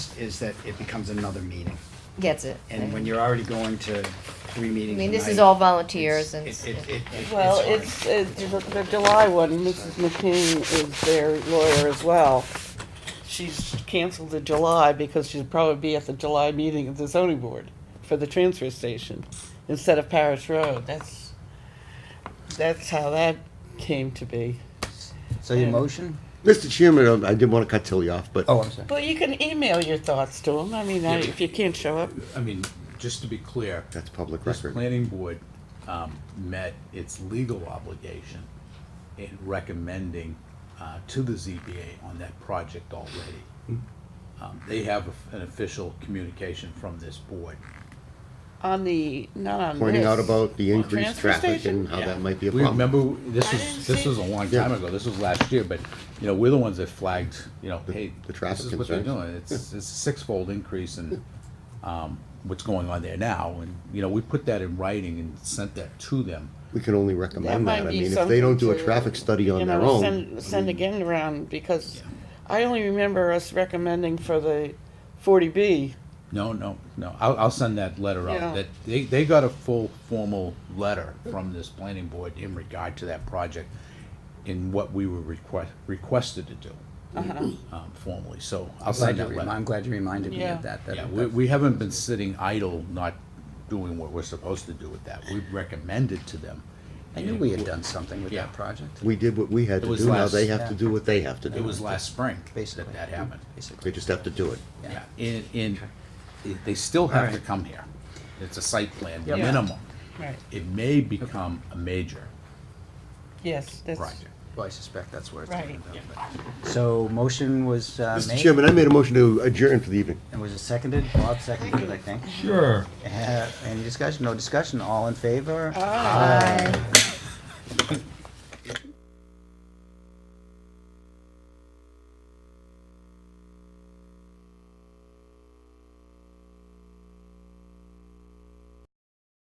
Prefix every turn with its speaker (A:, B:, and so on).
A: is that it becomes another meeting.
B: Gets it.
A: And when you're already going to three meetings
B: I mean, this
A: a
B: is
A: night,
B: all volunteers and.
A: it's- It, it, it, it-
C: Well,
A: hard.
C: it's, it's the July one, Mrs. McKean is their lawyer as well. She's canceled the July because she'd probably be at the July meeting of the zoning board for the transfer station instead of Parish Road. That's, that's how that came to be.
D: So your motion?
E: Mr. Chairman, um, I didn't want to cut Tilly off, but
D: Oh, I'm sorry.
C: Well, you can email your thoughts to them. I mean, I- if you can't show up,
F: I mean, just to be clear,
E: that's public
F: this
E: record.
F: planning board um, met its legal obligation in recommending uh, to the ZBA on that project already.
E: Mm-hmm.
F: Um, They have an official communication from this board.
C: on the, not on this.
E: Pointing out about the
C: On
E: increased
C: transfer
E: traffic
C: station?
E: and how
F: Yeah.
E: that might be a
F: We
E: problem.
F: Remember, this
C: I didn't
F: was, this
C: see-
F: was a long
E: Yeah.
F: time ago, this was last year, but, you know, we're the ones that flagged, you know, hey,
E: the
F: this
E: traffic
F: is what they're
E: concerns.
F: doing, it's, it's a six-fold increase in, um, what's going on there now, and, you know, we put that in writing and sent that to them.
E: We can only
C: That
E: recommend
C: might
E: that. I
C: be
E: mean, if
C: something
E: they don't do a
C: to,
E: traffic study
C: you
E: on their
C: know,
E: own,
C: Send, send again around, because I only remember us recommending for the forty B.
F: No, no, no, I'll, I'll send that letter
C: Yeah.
F: out, that, they, they got a full formal letter from this planning board in regard to that project in what we were request, requested to do, um, formally, so I'll
D: I'm glad you,
F: send that
D: remi-
F: letter.
D: I'm glad you reminded me
C: Yeah.
D: of that. that-
F: Yeah, we, we haven't been sitting idle, not doing what we're supposed to do with that. We've recommended to them.
D: I knew we had done something with
F: Yeah.
D: that project,
E: we did what we had
F: It
E: to
F: was
E: do. Now
F: last-
E: they have to
D: yeah.
E: do what they have to do.
F: It was last spring
D: basically.
F: that that happened.
D: Basically.
E: They just have to do it.
F: Yeah, and, and it- they still have to
D: Alright.
F: come here. It's a site plan,
C: Yep.
F: minimum.
C: Right.
F: It may become a major
C: Yes, that's.
F: project.
D: Well, I suspect that's where it's
C: Right.
D: going to go. but- So motion was uh,
E: Mr.
D: made,
E: Chairman, I made a motion to adjourn for the evening.
D: and was it seconded? Bob seconded, I think.
G: Sure.
D: Uh, Any discussion? No discussion? All in favor?
B: Aye.